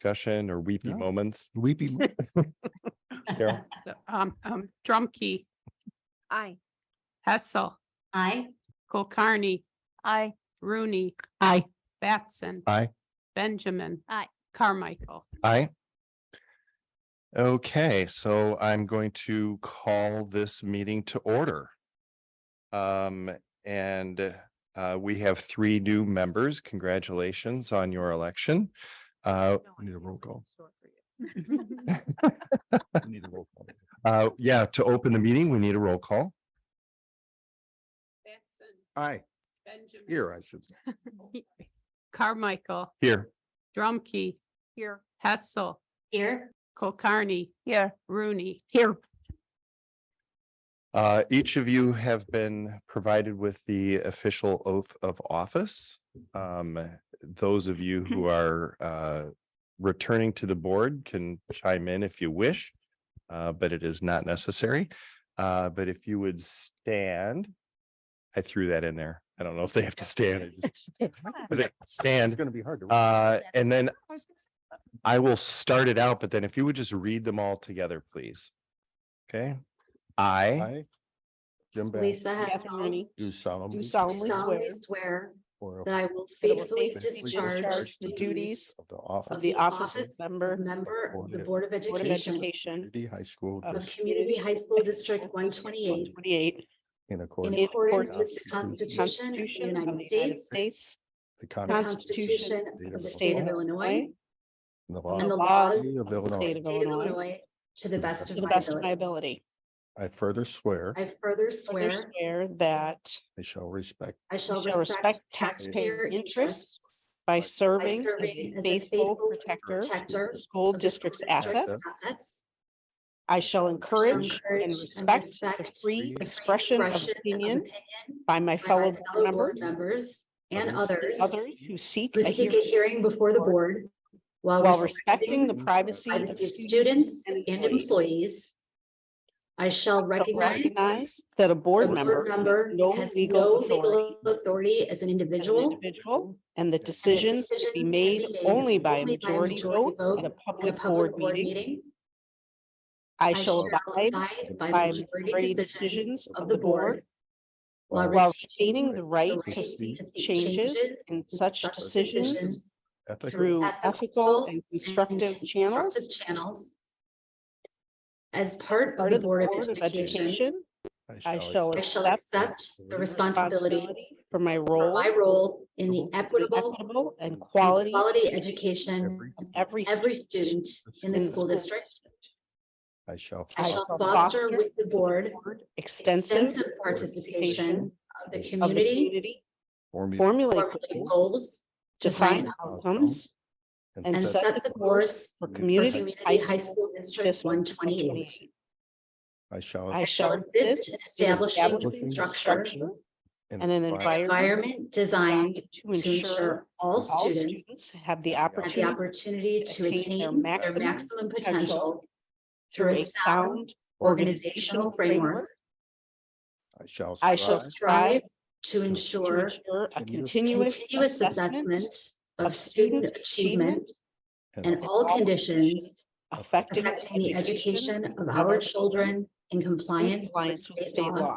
discussion or weepy No. moments? Weepy. Carol? So, um, um, Drumkey, Aye. Hessel, Aye. Kulkarni, Aye. Rooney, Aye. Batson. Aye. Benjamin. Aye. Carmichael. Aye. Okay, so I'm going to call this meeting to order. Um, and uh, we have three new members. Congratulations on your election. Uh, Need a roll call. Need a roll call. uh, yeah, to open the meeting, we need a roll call. Batson, Aye, Benjamin. Oh, here I should. say. Carmichael, Here. Drumkey, Here. Hessel, Here. Kulkarni, Here. Rooney. Here. Uh, each of you have been provided with the official oath of office. Um, those of you who are, uh, returning to the board can chime in if you wish. Uh, but it is not necessary. Uh, but if you would stand. I threw that in there. I don't know if they have to stand. I just- They It's Stand, gonna be hard to. uh, and then I will start it out, but then if you would just read them all together, please. Okay, I. Aye. Jim Bass, Lisa Rooney, Hessel. do solemnly. do swear do solemnly swear solemnly swear or that I will that I will faithfully faithfully discharge the duties Of the office. of the office of of member member Board of the of- Board of of Board of Education Education Community High School of of District Community High School District one twenty-eight twenty-eight in in accordance. in accordance with the accordance with the Constitution of the United States, States, the the Constitution Constitution of the State of Illinois, and the and the laws laws laws of the of the Illinois. state of the State of Illinois to the best to of the my best of my ability. ability. I further swear I further Further swear swear that I shall respect I shall I shall respect respect taxpayer taxpayer interests interests by serving as serving a as a faithful faithful protector protector of the school of the district's school district's assets. I shall encourage encourage and and respect the respect free the free expression of expression of opinion opinion by my by fellow board board members, Members and Others. others others who seek who a seek a hearing hearing before the board while respecting the the privacy of privacy of students and employees. I shall but recognize Recognize that a a board member board member has no has legal authority authority as an as an individual. individual, and that decisions to be decisions made only by a majority vote at a at a public board meeting. I I shall abide by majority decisions of the board while retaining the right to right seek to seek changes changes in such decisions ethical through ethical ethical and and constructive constructive channels Channels. As as part part of the Board of Education, Education I shall I shall accept accept the responsibility responsibility for my for role my role in the the equitable equitable and and quality quality education every- of every every student student in the in school district. I shall. I I shall shall foster foster with the board extensive extensive participation participation of the of the community, community, form- formulate formulate goals, goals, define define outcomes and set the course for for for community community high school district District one twenty-eight. 128. I shall. I I shall assist in establishing establishing a structure, and an environment environment designed to to ensure ensure all all students students have the have the opportunity opportunity to to attain their maximum potential through through a a sound sound organizational framework I shall. I shall strive strive to to to ensure ensure a continuous continuous continuous assessment assessment of student achievement and in all conditions affecting affecting the education of our children in in compliance with compliance with state law.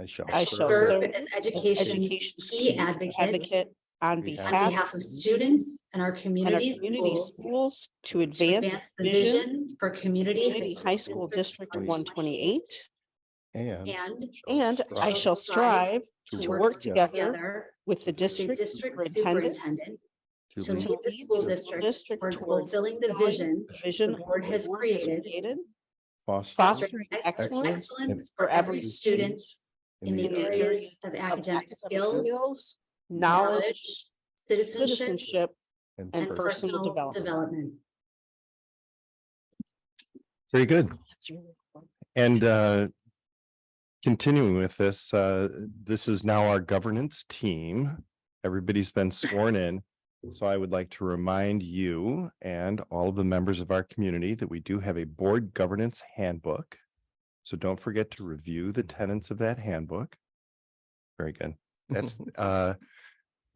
I shall. I shall Serve serve as as education education's key advocate advocate on On on behalf behalf of students and our and our community community schools. schools to to advance the vision vision for community. Community High School District one twenty-eight, And. And and I strive shall strive to work together together with with the the district district superintendent superintendent to To lead lead lead the the school school district district towards towards fulfilling the fulfilling vision vision the board the has board has created created, foster fostering excellence excellence excellence for every student in the area areas of academic skills, Knowledge, knowledge, citizenship, citizenship, and and and person. personal personal development. development. Very good. And uh, continuing with this, uh, this is now our governance team. Everybody's been sworn in. So I would like to remind you and all of the members of our community that we do have a board governance handbook. So don't forget to review the tenets of that handbook. Very good. That's uh,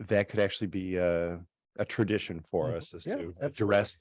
that could actually be uh, a tradition for us is Yeah, to absolutely. address